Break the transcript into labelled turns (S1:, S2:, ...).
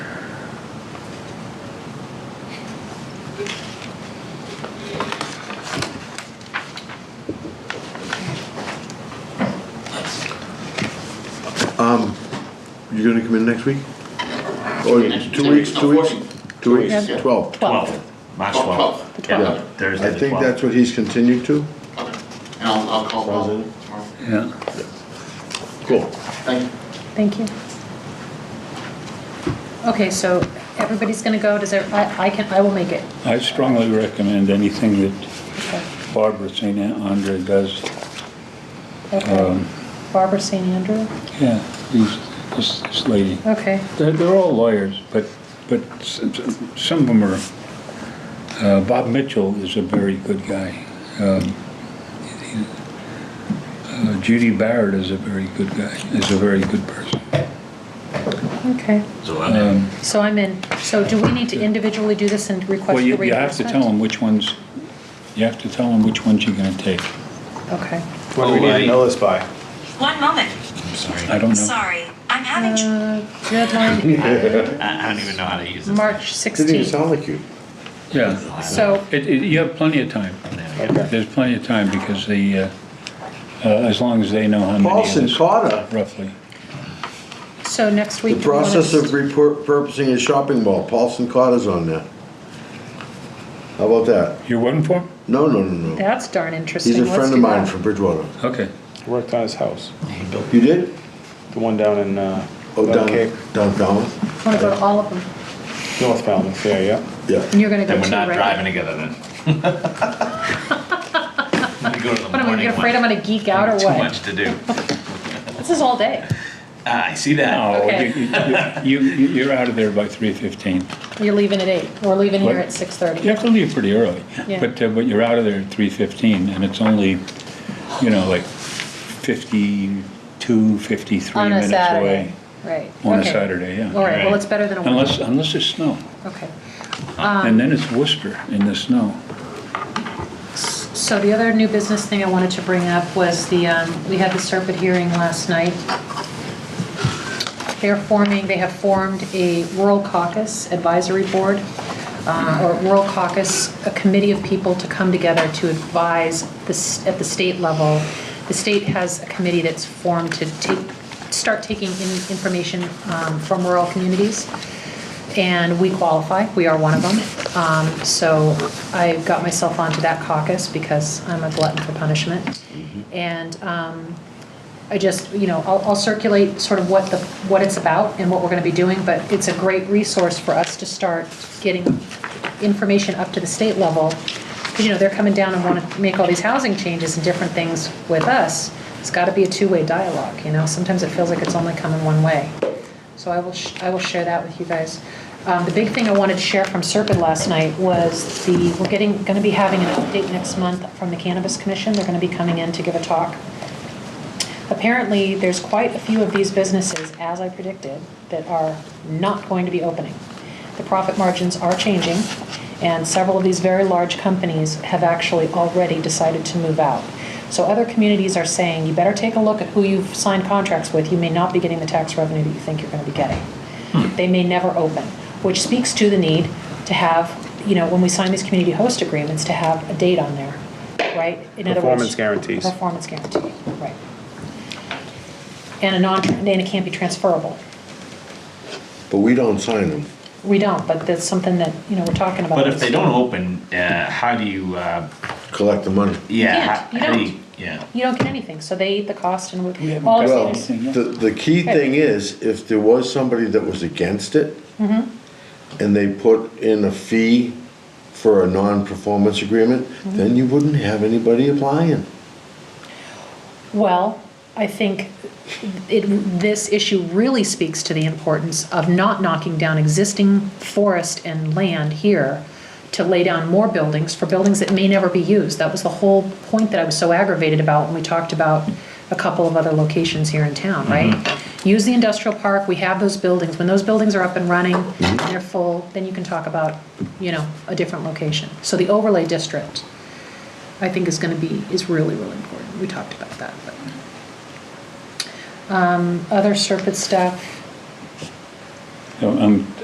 S1: You're gonna come in next week? Or
S2: Next-
S1: two weeks,
S2: no,
S1: two weeks?
S2: 14.
S1: Two weeks,
S2: Yeah.
S1: twelve.
S3: Twelve, March
S2: Oh,
S3: twelve.
S2: 12.
S3: Yeah,
S1: Yeah.
S3: Thursday
S1: I
S3: the
S1: think
S3: 12th.
S1: that's what he's continued to.
S2: Okay. And I'll, I'll call Paul
S1: Sounds good.
S2: tomorrow.
S4: Yeah.
S1: Cool.
S2: Thank you.
S5: Thank you. Okay, so everybody's gonna go, does there, I, I can, I will make it.
S4: I strongly recommend anything that
S5: Okay.
S4: Barbara St. Andre does. Um,
S5: Okay. Barbara St. Andrew,
S4: Yeah, these- this, this lady.
S5: okay,
S4: They're, they're all lawyers, but, but s- s- some of them are, uh, Bob Mitchell is a very good guy. Um, he- uh, Judy Barrett is a very good guy, is a very good person. Um,
S5: okay.
S3: So uh, I'm in.
S5: So I'm in. So do we need to individually do this and request
S4: Well,
S5: the
S4: you,
S5: reimbursement?
S4: you have to tell them which ones, you have to tell them which ones you're gonna take.
S5: Okay.
S6: What do we need to know this by?
S7: One moment.
S3: I'm sorry.
S4: I don't know.
S7: Sorry, I'm having trouble.
S5: Uh, Deadline,
S3: I, I don't even know how to use this.
S5: March
S1: Didn't even
S5: 16th.
S1: sound like you.
S4: Yeah.
S5: So,
S4: It, it, you have plenty of time. There's plenty of time because the, uh, uh, as long as they know how many of
S1: Paulson
S4: this
S1: Carter.
S4: roughly.
S5: so next
S1: The
S5: week. do you want
S1: process of
S5: us-
S1: repurposing a shopping mall, Paulson Carter's on that. How about that?
S4: You're voting for? 'em?
S1: No, no, no, no.
S5: That's darn interesting.
S1: He's a
S5: Let's
S1: friend of
S5: do
S1: mine
S5: that.
S1: from Bridgewater.
S4: Okay.
S6: Worked on his house,
S1: You did?
S6: the one down in, uh,
S1: Oh, down,
S6: Cake,
S1: down Falmouth?
S5: I wanna go to all of them.
S6: North Falmouth, yeah, yeah.
S1: Yeah.
S5: And you're gonna go
S3: Then
S5: too,
S3: we're not driving
S5: right?
S3: together then. We go to the
S5: What, am I
S3: morning
S5: gonna- afraid I'm
S3: one.
S5: gonna geek out or
S3: Too
S5: what?
S3: much to do.
S5: This is all day.
S3: Ah, I see that.
S4: Oh,
S5: Okay.
S4: you- you, you, you're out of there by three fifteen.
S5: You're leaving at eight. We're leaving here
S4: What?
S5: at six thirty.
S4: You have to leave pretty early,
S5: Yeah.
S4: but, uh, but you're out of there at three fifteen and it's only, you know, like fifty-two, fifty-three
S5: On a
S4: minutes
S5: Saturday.
S4: away.
S5: Right.
S4: On a
S5: Okay.
S4: Saturday, yeah.
S5: All right, well,
S3: Right.
S5: it's better than a
S4: Unless,
S5: Wednesday.
S4: unless it's snow.
S5: Okay. Um,
S4: And then it's Worcester in the snow.
S5: So the other new business thing I wanted to bring up was the, um, we had the Serpent hearing last night. They're forming, they have formed a rural caucus advisory board, uh, or rural caucus, a committee of people to come together to advise this, at the state level. The state has a committee that's formed to take, start taking in information um, from rural communities and we qualify, we are one of them. Um, So I got myself onto that caucus because I'm a glutton for punishment. And um, I just, you know, I'll I'll circulate sort of what the, what it's about and what we're going to be doing, but it's a great resource for us to start getting information up to the state level. Because, you know, they're coming down and want to make all these housing changes and different things with us. It's got to be a two-way dialogue, you know? Sometimes it feels like it's only coming one way. So I will, sh- I will share that with you guys. Um, The big thing I wanted to share from Serpide last night was the, we're getting, going to be having an update next month from the Cannabis Commission. They're going to be coming in to give a talk. Apparently, there's quite a few of these businesses, as I predicted, that are not going to be opening. The profit margins are changing, and several of these very large companies have actually already decided to move out. So other communities are saying, you better take a look at who you've signed contracts with. You may not be getting the tax revenue that you think you're going to be getting.
S6: Hmm.
S5: They may never open, which speaks to the need to have, you know, when we sign these community host agreements, to have a date on there, right? In other words-
S6: Performance guarantees.
S5: Performance guarantee, right. And a non, and it can't be transferable.
S1: But we don't sign them.
S5: We don't, but that's something that, you know, we're talking about.
S3: But if they don't open, uh, how do you, uh,
S1: Collect the money.
S3: yeah,
S5: You can't,
S3: how how do
S5: you
S3: you, yeah.
S5: You don't get anything, so they eat the cost and we,
S4: haven't
S5: all
S4: got
S1: Well,
S5: of
S4: anything.
S5: these,
S1: the, the key thing is, if there was somebody that was against it, and they put in a fee for a non-performance agreement, then you wouldn't have anybody applying.
S5: well, I think it, this issue really speaks to the importance of not knocking down existing forest and land here to lay down more buildings for buildings that may never be used. That was the whole point that I was so aggravated about when we talked about a couple of other locations here in town, right? Use the industrial park, we have those buildings. When those buildings are up and running, and they're full, then you can talk about, you know, a different location. So the overlay district, I think is gonna be, is really, really important. We talked about that, um, but other Serpent stuff.
S4: So um, I'm